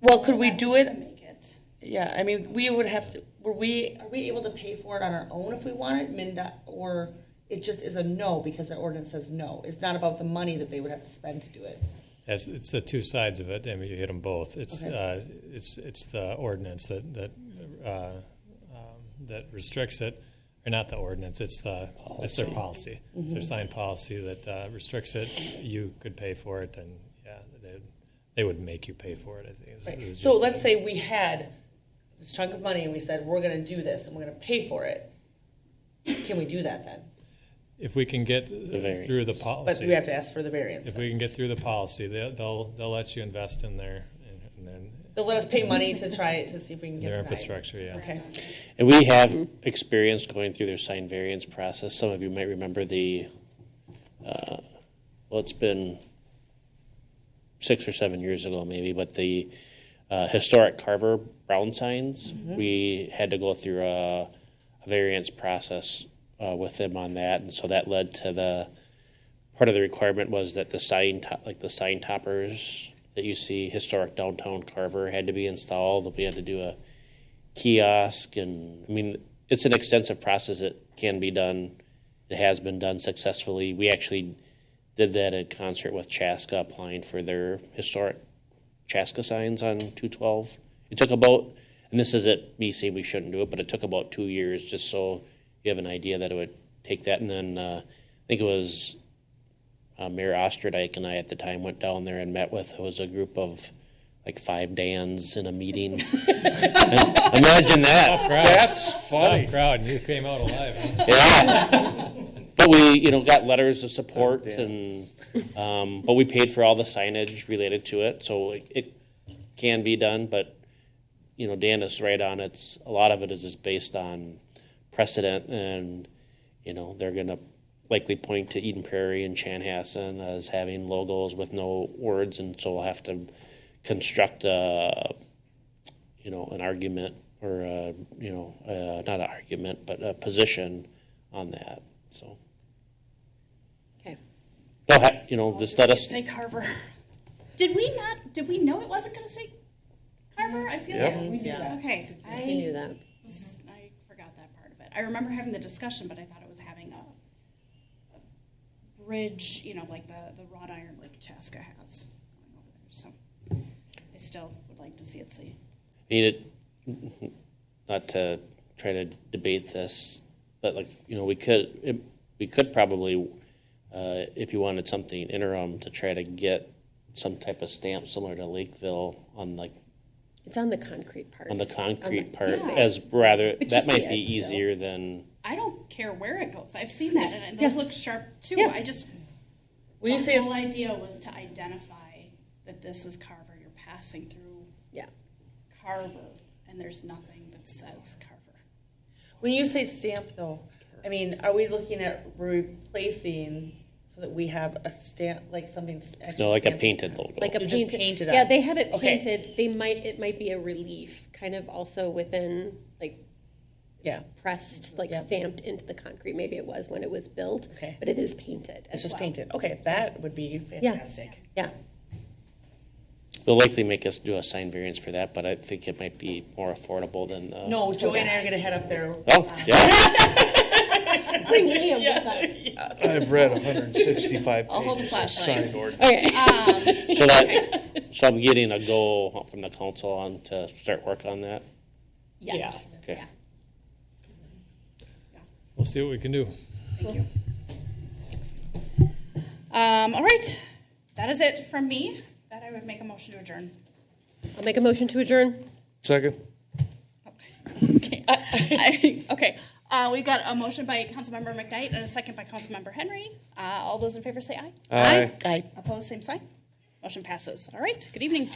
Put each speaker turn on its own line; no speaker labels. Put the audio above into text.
Well, could we do
To
it?
make it.
Yeah, I mean, we would have to, were we, are we able to pay for it on our own if we wanted, Minda, or it just is a no because the ordinance says no? It's not about the money that they would have to spend to do it.
As it's the two sides of it. I mean, you hit them both. It's
Okay.
uh, it's it's the ordinance that that uh, um, that restricts it, or not the ordinance. It's the it's their policy. It's
Mm-hmm.
their signed policy that uh, restricts it. You could pay for it, and yeah, they, they would make you pay for it. I think. is-
Right.
is
So
just-
let's say we had this chunk of money and we said, we're gonna do this and we're gonna pay for it. Can we do that then?
if we can get
variance.
through the
But
policy,
we have to ask for the variance.
if
then.
we can get through the policy, they, they'll they'll let you invest in their in, in their,
They'll let us pay money to try it, to see if we can get
their
denied.
infrastructure. Yeah.
Okay,
And we have experience going through their sign variance process. Some of you might remember the, uh, well, it's been six or seven years ago maybe, but the uh, historic Carver Brown signs, we had to go through a a variance process uh, with them on that. And so that led to the, part of the requirement was that the sign, to- like the sign toppers that you see historic downtown Carver had to be installed. We had to do a kiosk and I mean it's an extensive process that can be done. It has been done successfully. We actually did that in concert with Chaska applying for their historic Chaska signs on 212. It took about, and this isn't me saying we shouldn't do it, but it took about two years just so you have an idea that it would take that. And then uh, I think it was uh, Mayor Ostradike and I at the time went down there and met with, it was a group of like five Dans in a meeting. Imagine that.
That's funny. crowd, and you came out alive. huh?
Yeah. But we, you know, got letters of support and, um, but we paid for all the signage related to it, so it, it can be done, but, you know, Dan is right on, it's, a lot of it is just based on precedent and, you know, they're gonna likely point to Eden Prairie and Chanhassen as having logos with no words, and so we'll have to construct a, you know, an argument or a, you know, uh, not an argument, but a position on that. So,
okay.
no, ha- you know, just let us.
Say Carver. Did we not, did we know it wasn't gonna say Carver? I feel like.
We knew
Yeah.
that.
Okay, I.
We knew that.
was- I forgot that part of it. I remember having the discussion, but I thought it was having a, a bridge, you know, like the, the wrought iron like Chaska has going over there. So I still would like to see it see.
I mean, it, not to try to debate this, but like, you know, we could, it- we could probably, uh, if you wanted something interim to try to get some type of stamp similar to Lakeville on like,
It's on the concrete part.
on the concrete
the-
part
Yeah.
as rather,
But you
that
see
might be
it, so.
easier than,
I don't care where it goes. I've seen that and those look sharp too.
Yeah.
I just,
Will you
the
say
whole
it's,
idea was to identify that this is Carver. You're passing through
Yeah.
Carver and there's nothing that says Carver.
when you say stamp though, I mean, are we looking at replacing so that we have a stamp, like something? s- actually
no, like a
stamped?
painted logo.
Like a
You
painted.
just painted
Yeah,
on.
they have it
Okay.
painted. They might, it might be a relief, kind of also within, like
Yeah,
pressed, like
Yep.
stamped into the concrete. Maybe it was when it was built,
Okay.
but it is painted.
it's
as
just
well.
painted. Okay, that would be fantastic.
Yeah.
They'll likely make us do a sign variance for that, but I think it might be more affordable than, uh,
No, Joey and I are gonna head up there.
oh, yeah,
Bring Liam with us.
I've read 165
I'll hold a
pages of
flashlight.
signed ordinance.
Okay.
so that, so I'm getting a goal from the council on to start work on that,
Yes.
okay.
We'll see what we can do.
Thank you. Thanks. Um, all right, that is it from me. That I would make a motion to adjourn.
I'll make a motion to adjourn.
Second.
Okay. I- Okay, uh, we've got a motion by Councilmember McKnight and a second by Councilmember Henry. Uh, all those in favor say aye.
Aye.
I
Opposed, same sign. Motion passes. All right, good evening.